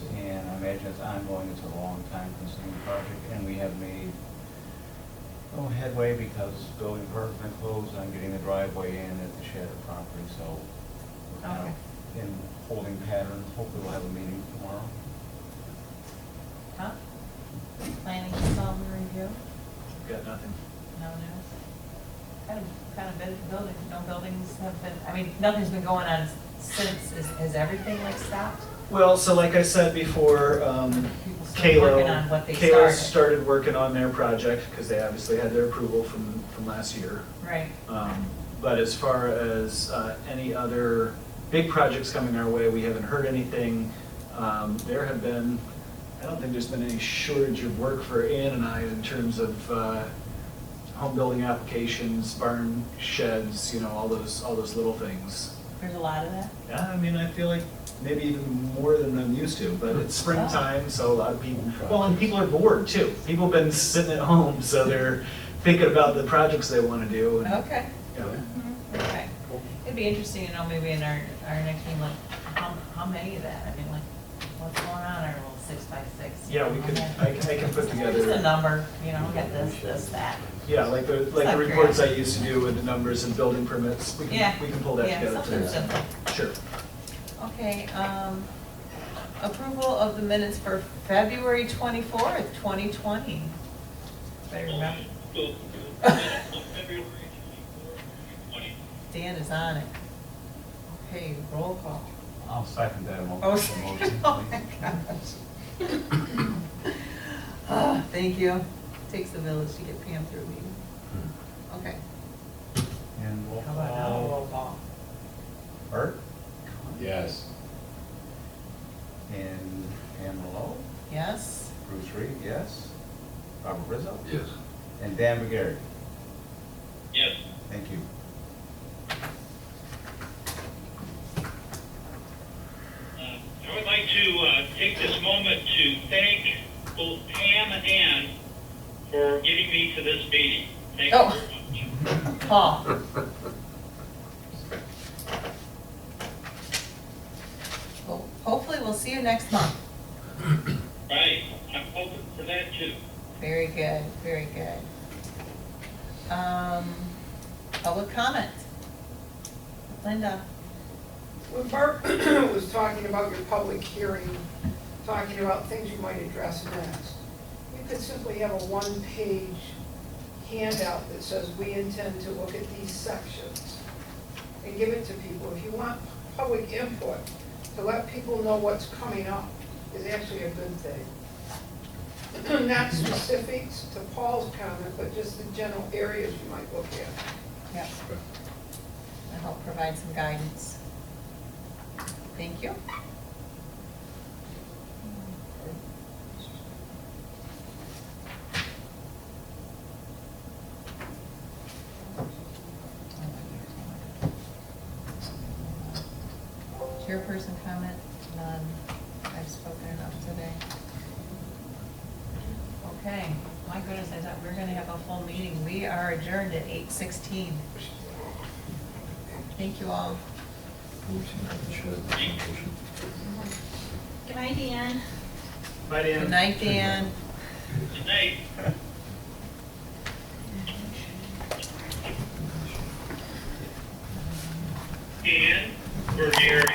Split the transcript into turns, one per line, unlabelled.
imagine it's ongoing, it's a long time consuming project, and we have made no headway because building permit closed on getting the driveway in at the Shatter property, so we're kind of in holding pattern. Hopefully we'll have a meeting tomorrow.
Huh? Planning development review?
Got nothing.
No news? Kind of, kind of been building, no buildings have been, I mean, nothing's been going on since, Is- has everything like stopped?
Well, so like I said before, um,
People still working on
Kalo,
what they
Kalo
started.
started working on their project because they obviously had their approval from, from last year.
Right,
Um, But as far as uh, any other big projects coming our way, we haven't heard anything. Um, There have been, I don't think there's been any shortage of work for Ann and I in terms of uh, home building applications, barn sheds, you know, all those, all those little things.
there's a lot of that?
Yeah, I mean, I feel like maybe even more than I'm used to, but it's springtime, so a lot of people, well, and people are bored too. People have been sitting at home, so they're thinking about the projects they want to do. and-
Okay.
Yeah.
Mhm, Okay. It'd be interesting to know maybe in our, our next meeting, like, how, how many of that? I mean, like, what's going on, our little six by six?
Yeah, we could, I can, I can put
Just a
together,
number, you know, get this, this, that.
yeah, like the, like the reports I used to do with the numbers and building permits, we
Yeah.
can, we can pull that
Yeah,
together
something
too.
simple.
Sure.
Okay, um, approval of the minutes for February twenty-fourth, twenty twenty. Better remember,
February 24th,
Dan is on it. Okay, roll call.
I'll second that mo-
Oh,
motion.
oh my
please.
gosh. Ah, Thank you. Takes a village to get Pam through a meeting. Okay.
And we'll
How about now,
call
roll call?
Bert
Yes.
and Pam Malone,
Yes?
Bruce Reed, yes, Robert Rizzo,
Yes.
and Dan McGarry.
Yes.
Thank you.
Uh, I would like to uh, take this moment to thank both Pam and Ann for getting me to this meeting. Thank you
Oh.
very much.
Paul? Well, hopefully we'll see you next month.
Right, I'm hoping for that too.
Very good, very good. Um, public comment? Linda?
When Bart was talking about your public hearing, talking about things you might address next, you could simply have a one-page handout that says, we intend to look at these sections, and give it to people. If you want public input, to let people know what's coming up is actually a good thing. Not specifics to Paul's comment, but just the general areas you might look at.
Yep.
Okay.
To help provide some guidance. Thank you. Chairperson comment, none. I've spoken enough today. Okay, my goodness, I thought we were gonna have a full meeting. We are adjourned at eight sixteen. Thank you all.
Good night, Dan.
Bye, Dan.
Good night, Dan.
Good night.